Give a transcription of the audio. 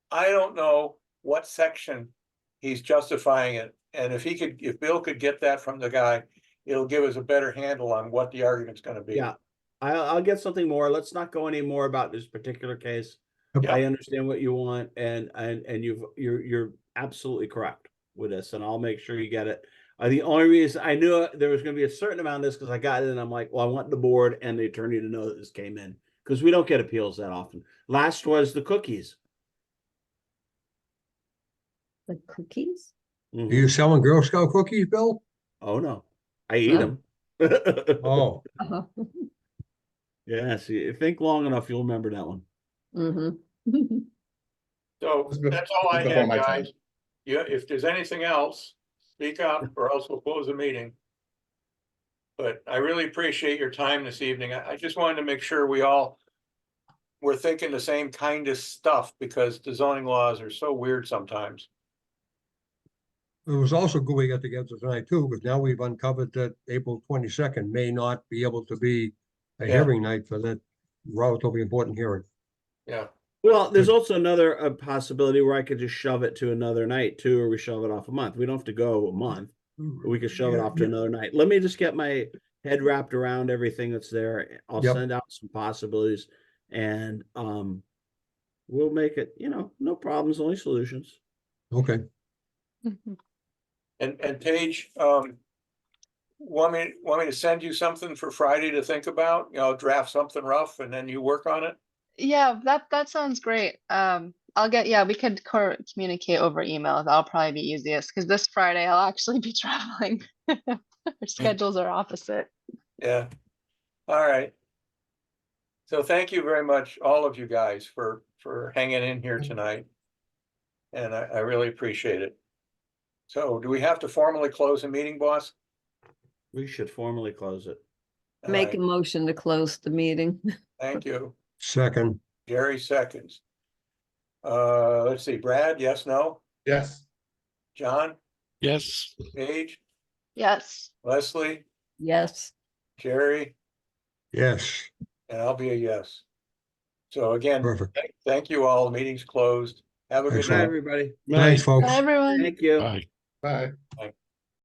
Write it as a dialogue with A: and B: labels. A: I don't know what section he's justifying it. And if he could, if Bill could get that from the guy, it'll give us a better handle on what the argument's gonna be.
B: Yeah, I'll, I'll get something more. Let's not go any more about this particular case.
C: Okay.
B: I understand what you want and, and, and you've, you're, you're absolutely correct with this and I'll make sure you get it. Uh, the only reason I knew there was gonna be a certain amount of this, cause I got it and I'm like, well, I want the board and the attorney to know that this came in. Cause we don't get appeals that often. Last was the cookies.
D: The cookies?
C: Are
B: Mhm.
C: you selling Girl Scout cookies, Bill?
B: Oh, no, I eat
D: Oh.
B: them.
C: Oh,
D: Uh-huh.
B: Yes, you think long enough, you'll remember that one.
D: Mm-hmm.
A: So
E: It's bef-
A: that's all I
E: it's before
A: had,
E: my time.
A: guys. Yeah, if there's anything else, speak up or else we'll close the meeting. But I really appreciate your time this evening. I, I just wanted to make sure we all were thinking the same kind of stuff because the zoning laws are so weird sometimes.
C: it was also good we got together tonight too, because now we've uncovered that April twenty-second may not be able to be a
A: Yeah.
C: hearing night for that relatively important hearing.
A: Yeah,
B: Well, there's also another uh, possibility where I could just shove it to another night too, or we shove it off a month. We don't have to go a month. but We could shove it
C: Yeah,
B: off to
C: yeah.
B: another night. Let me just get my head wrapped around everything that's there. I'll
C: Yep.
B: send out some possibilities and um we'll make it, you know, no problems, only solutions.
C: Okay,
A: and, and Paige, um, want me, want me to send you something for Friday to think about? You know, draft something rough and then you work on it?
F: Yeah, that that sounds great. Um, I'll get, yeah, we could cor- communicate over email. That'll probably be easiest because this Friday I'll actually be traveling. Our schedules are opposite.
A: Yeah, all right. So thank you very much, all of you guys, for, for hanging in here tonight. And I, I really appreciate it. So do we have to formally close the meeting, boss?
B: We should formally close it.
A: All
D: Make a
A: right,
D: motion to close the meeting.
A: Thank you.
C: second,
A: Gary seconds. Uh, let's see, Brad, yes, no?
E: Yes.
A: John,
G: Yes.
A: Paige,
F: Yes.
A: Leslie,
D: Yes.
A: Jerry,
C: yes,
A: and I'll be a yes. So again,
C: perfect.
A: thank- thank you all. Meeting's closed. Have a good
B: Good night,
A: night.
C: Excellent.
B: everybody.
C: Thanks, folks.
F: Bye, everyone.
B: Thank you.
G: Bye.
E: Bye.
A: Bye.